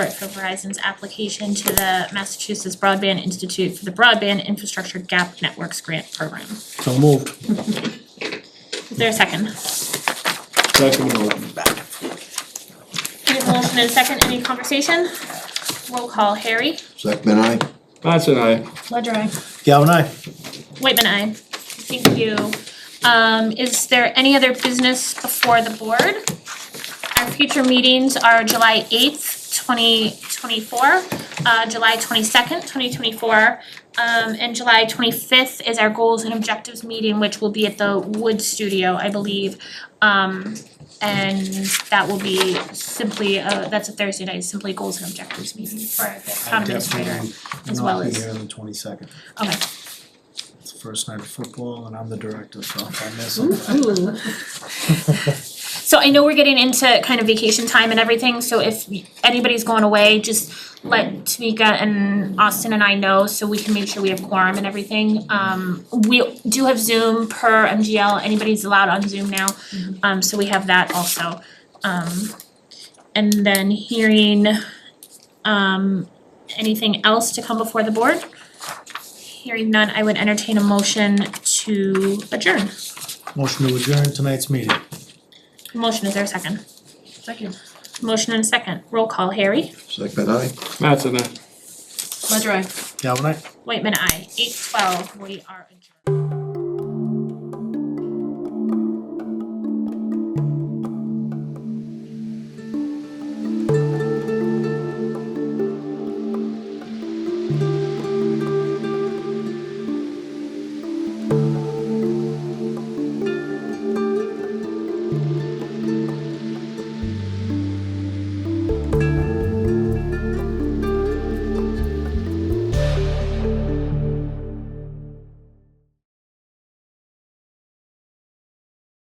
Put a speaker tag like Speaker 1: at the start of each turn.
Speaker 1: support for Verizon's application to the Massachusetts Broadband Institute for the Broadband Infrastructure Gap Networks Grant Program. Is
Speaker 2: So moved.
Speaker 1: there a second?
Speaker 2: Second motion.
Speaker 1: We have a motion and a second, any conversation? Roll call, Harry.
Speaker 3: Second I.
Speaker 2: Mattson, aye.
Speaker 1: Ledger, I.
Speaker 2: Galvin, aye.
Speaker 1: Whitman, I. Thank you. Um, is there any other business before the board? Our future meetings are July eighth, twenty twenty-four, uh, July twenty-second, twenty twenty-four. Um, and July twenty-fifth is our goals and objectives meeting, which will be at the Wood Studio, I believe. Um, and that will be simply, uh, that's a Thursday night, simply goals and objectives meeting for the town administrator. as well as-
Speaker 4: Definitely not be here on the twenty second.
Speaker 1: Okay.
Speaker 4: It's the first night of football and I'm the director, so if I miss
Speaker 1: Ooh,
Speaker 4: it,
Speaker 1: ooh. So I know we're getting into kind of vacation time and everything, so if anybody's going away, just let Tamika and Austin and I know so we can make sure we have quorum and everything. Um we do have Zoom per MGL, anybody's allowed on Zoom now, um so we have that also. Um and then hearing um anything else to come before the board? Hearing none, I would entertain a motion to adjourn.
Speaker 4: motion to adjourn tonight's meeting.
Speaker 1: Motion, is there a second?
Speaker 5: Second.
Speaker 1: Motion and a second, roll call, Harry,
Speaker 3: Second I.
Speaker 2: Mattson, aye.
Speaker 5: Ledger, I.
Speaker 4: Galvin, aye?
Speaker 1: Whitman, I. eight twelve, we are adjourned.